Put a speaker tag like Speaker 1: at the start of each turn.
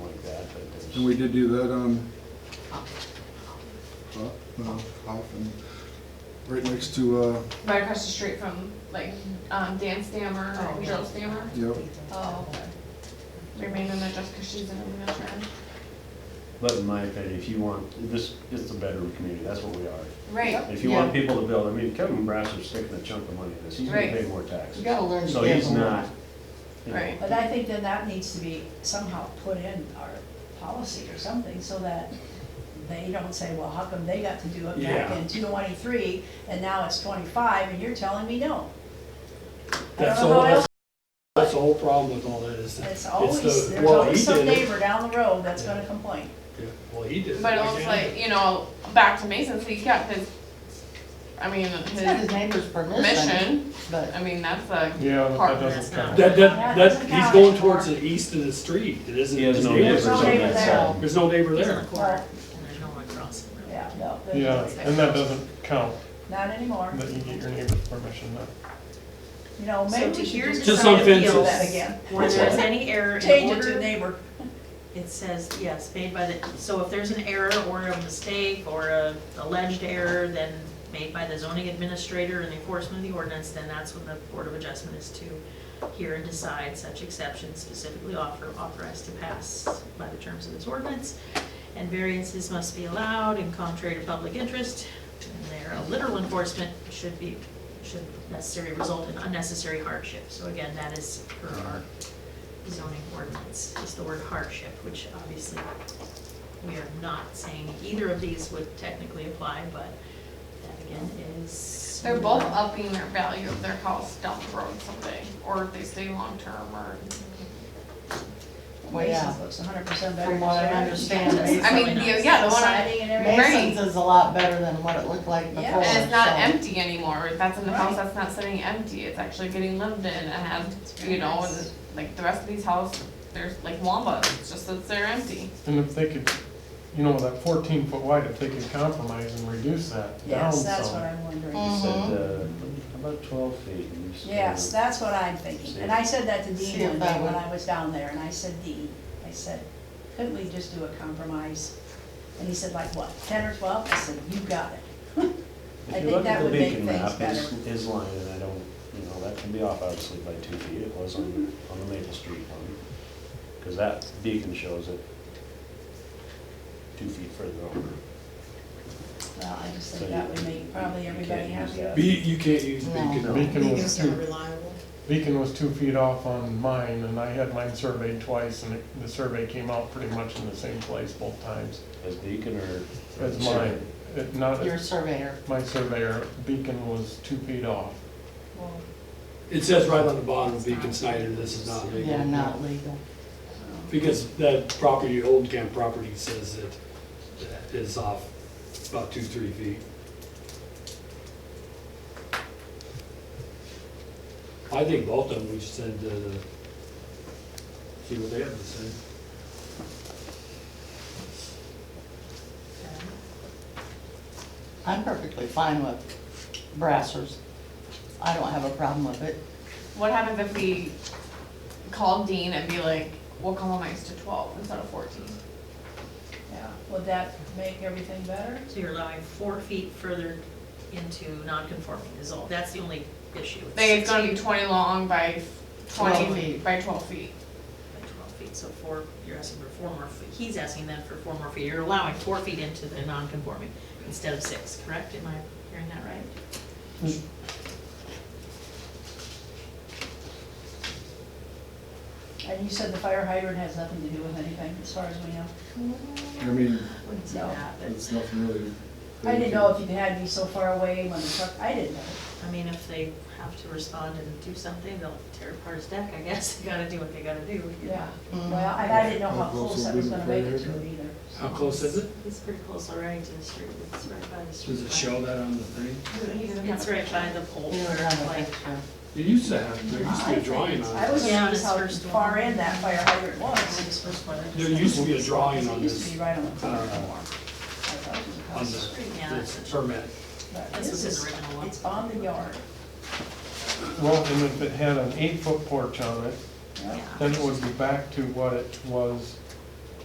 Speaker 1: And we did do that um, on Hoff, no, Hoff and right next to, uh,
Speaker 2: Right across the street from, like, um, Dan Stammer,
Speaker 3: Oh,
Speaker 2: or
Speaker 3: yeah.
Speaker 2: Joe Stammer.
Speaker 1: yep,
Speaker 2: Oh, okay. Remain in there just because she's in a wheelchair.
Speaker 4: But in my opinion, if you want, this, it's a bedroom community, that's what we are.
Speaker 2: Right.
Speaker 4: If you want people to build, I mean, Kevin Brasser's sticking a chunk of money in this, he's gonna
Speaker 2: Right.
Speaker 4: pay more taxes.
Speaker 3: You gotta learn to
Speaker 4: So
Speaker 3: give
Speaker 4: he's
Speaker 3: them.
Speaker 4: not, you know,
Speaker 2: Right.
Speaker 3: But I think that that needs to be somehow put in our policy or something, so that they don't say, well, how come they got to do it back
Speaker 4: Yeah.
Speaker 3: in twenty-three, and now it's twenty-five, and you're telling me no? I
Speaker 5: That's
Speaker 3: don't know
Speaker 5: the whole,
Speaker 3: how else,
Speaker 5: that's, that's the whole problem with all that is that.
Speaker 3: it's always,
Speaker 5: the-
Speaker 3: there's
Speaker 5: well,
Speaker 3: always
Speaker 5: he
Speaker 3: some
Speaker 5: did it.
Speaker 3: neighbor down the road that's gonna complain.
Speaker 5: Yeah, Well, he did. it.
Speaker 2: But it
Speaker 5: Why
Speaker 2: was
Speaker 5: can't he?
Speaker 2: like, you know, back to Mason's, he's got his, I mean,
Speaker 6: It's not his
Speaker 2: his
Speaker 6: neighbor's permission,
Speaker 2: mission,
Speaker 6: but
Speaker 2: I mean, that's a
Speaker 7: Yeah, but
Speaker 2: part
Speaker 7: that
Speaker 2: of
Speaker 7: doesn't count.
Speaker 5: That, that,
Speaker 3: That doesn't
Speaker 5: that, he's
Speaker 3: count
Speaker 5: going
Speaker 3: anymore.
Speaker 5: towards the east of the street, it isn't.
Speaker 4: He has
Speaker 5: his
Speaker 4: no
Speaker 5: neighbors.
Speaker 4: neighbors on
Speaker 3: neighbor
Speaker 4: that
Speaker 3: there.
Speaker 4: side.
Speaker 5: There's no neighbor
Speaker 8: He's in
Speaker 5: there.
Speaker 8: the corner, and there's no one crossing.
Speaker 3: Yeah, no, there's no-
Speaker 7: Yeah, and that doesn't count,
Speaker 3: not anymore.
Speaker 7: that you get your neighbor's permission, no.
Speaker 3: You know, maybe we
Speaker 8: So
Speaker 3: should
Speaker 8: here's
Speaker 3: just
Speaker 5: the
Speaker 3: try to
Speaker 5: sign.
Speaker 3: deal with that
Speaker 8: Fences.
Speaker 3: again.
Speaker 8: When there's any error in
Speaker 3: Change it to
Speaker 8: order,
Speaker 3: neighbor.
Speaker 8: it says, yes, made by the, so if there's an error or a mistake or a alleged error, then made by the zoning administrator in the enforcement of the ordinance, then that's when the Board of Adjustment is to hear and decide such exceptions specifically offer, authorized to pass by the terms of this ordinance. And variances must be allowed and contrary to public interest, and their literal enforcement should be, should necessarily result in unnecessary hardship. So again, that is per our zoning ordinance, is the word hardship, which obviously we are not saying either of these would technically apply, but that again is.
Speaker 2: They're both upping their value of their house down the road someday, or if they stay long-term, or,
Speaker 6: yeah.
Speaker 3: Mason's looks hundred percent better.
Speaker 6: From what I
Speaker 3: than ours.
Speaker 6: understand,
Speaker 3: It's
Speaker 2: I mean,
Speaker 8: Something
Speaker 2: the-
Speaker 8: else.
Speaker 2: yeah, the one on,
Speaker 3: Siding and everything.
Speaker 6: Mason's is a lot better than what it looked like before.
Speaker 3: Yeah.
Speaker 2: and it's not
Speaker 6: so-
Speaker 2: empty anymore, that's in the house,
Speaker 3: Right.
Speaker 2: that's not sitting empty, it's actually getting lived in, and has, you know, and like, the rest of these houses, there's like Wamba, it's just that they're empty.
Speaker 7: And if they could, you know, that fourteen foot wide, if they could compromise and reduce that down
Speaker 3: Yes, that's what
Speaker 7: some.
Speaker 3: I'm wondering.
Speaker 6: Mm.
Speaker 4: He said, uh, about twelve feet. and he's-
Speaker 3: Mm-hmm. Yes, that's what I'm thinking. And I said that to
Speaker 6: See
Speaker 3: Dean
Speaker 6: if
Speaker 3: one
Speaker 6: that
Speaker 3: day when
Speaker 6: would-
Speaker 3: I was down there, and I said, Dean, I said, couldn't we just do a compromise? And he said, like what, ten or twelve? I said, you got it. I
Speaker 4: If you
Speaker 3: think
Speaker 4: look
Speaker 3: that
Speaker 4: at the
Speaker 3: would make
Speaker 4: beacon
Speaker 3: things
Speaker 4: map, his,
Speaker 3: better.
Speaker 4: his line, and I don't, you know, that can be off obviously by two feet, it was on, on the Maple Street one. Cause that beacon shows it two feet further over.
Speaker 3: Well, I just
Speaker 4: So
Speaker 3: think that
Speaker 4: you-
Speaker 3: would make probably
Speaker 4: you
Speaker 3: everybody
Speaker 4: can't use
Speaker 3: happier.
Speaker 4: that.
Speaker 5: Be, you can't use
Speaker 6: No.
Speaker 5: beacon.
Speaker 4: No.
Speaker 7: Beacon was
Speaker 8: Vehicles are
Speaker 7: two,
Speaker 8: reliable.
Speaker 7: Beacon was two feet off on mine, and I had mine surveyed twice, and it- the survey came out pretty much in the same place both times
Speaker 4: As beacon or?
Speaker 7: as mine. It- Not,
Speaker 6: Your surveyor.
Speaker 7: my surveyor, Beacon was two feet off.
Speaker 5: It says right on the bottom, Beacon Snyder, this is not legal.
Speaker 6: Yeah, not legal.
Speaker 5: Because that property, old camp property says it that is off about two, three feet. I think both of them, we should send, uh, see what they have to say.
Speaker 6: I'm perfectly fine with brassers. I don't have a problem with it.
Speaker 2: What happens if we call Dean and be like, we'll compromise to twelve instead of fourteen?
Speaker 3: Yeah. Would that make everything better?
Speaker 8: So you're allowing four feet further into non-conforming is all, that's the only issue. It's
Speaker 2: They, it's gonna be twenty long by
Speaker 6: Twelve
Speaker 2: twenty,
Speaker 6: feet.
Speaker 2: by twelve feet.
Speaker 8: by Twelve feet, so four, you're asking for four more feet, he's asking then for four more feet, you're allowing four feet into the non-conforming instead of six, correct? Am I hearing that right?
Speaker 3: And you said the fire hydrant has nothing to do with anything, as far as we know.
Speaker 1: I mean,
Speaker 8: I Wouldn't say
Speaker 3: No.
Speaker 8: that, but,
Speaker 1: it's nothing really.
Speaker 3: I didn't know if you had me so far away when the truck, I didn't know.
Speaker 8: I mean, if they have to respond and do something, they'll tear apart his deck, I guess, they gotta do what they gotta do. you know?
Speaker 3: Yeah,
Speaker 6: Mhm.
Speaker 3: well, and I didn't know how
Speaker 1: That was
Speaker 3: close
Speaker 1: a
Speaker 3: I was
Speaker 1: big
Speaker 3: gonna make it to
Speaker 1: fire
Speaker 3: it either.
Speaker 5: How close is it?
Speaker 8: He's pretty close already to the street, it's right by the street.
Speaker 5: Does it show that on the thing?
Speaker 8: It's right by the pole,
Speaker 6: We were on the
Speaker 8: like,
Speaker 6: picture.
Speaker 5: It used to have, there used to be a drawing on
Speaker 3: I
Speaker 5: it.
Speaker 3: was
Speaker 8: Yeah,
Speaker 3: amazed
Speaker 8: this
Speaker 3: how
Speaker 8: first
Speaker 3: far
Speaker 8: one.
Speaker 3: in that fire hydrant was.
Speaker 8: this first one.
Speaker 5: There used to be a drawing
Speaker 3: It
Speaker 5: on
Speaker 3: used to
Speaker 5: this,
Speaker 3: be right on the corner
Speaker 5: uh,
Speaker 3: more. I thought it was
Speaker 5: on
Speaker 3: across the
Speaker 5: the,
Speaker 3: street.
Speaker 8: Yeah, that's
Speaker 5: this permit.
Speaker 3: But
Speaker 8: This was
Speaker 3: This
Speaker 8: his
Speaker 3: is,
Speaker 8: original one.
Speaker 3: it's on the yard.
Speaker 7: Well, and if it had an eight foot porch on it,
Speaker 3: Yeah.
Speaker 7: then it would be back to what it was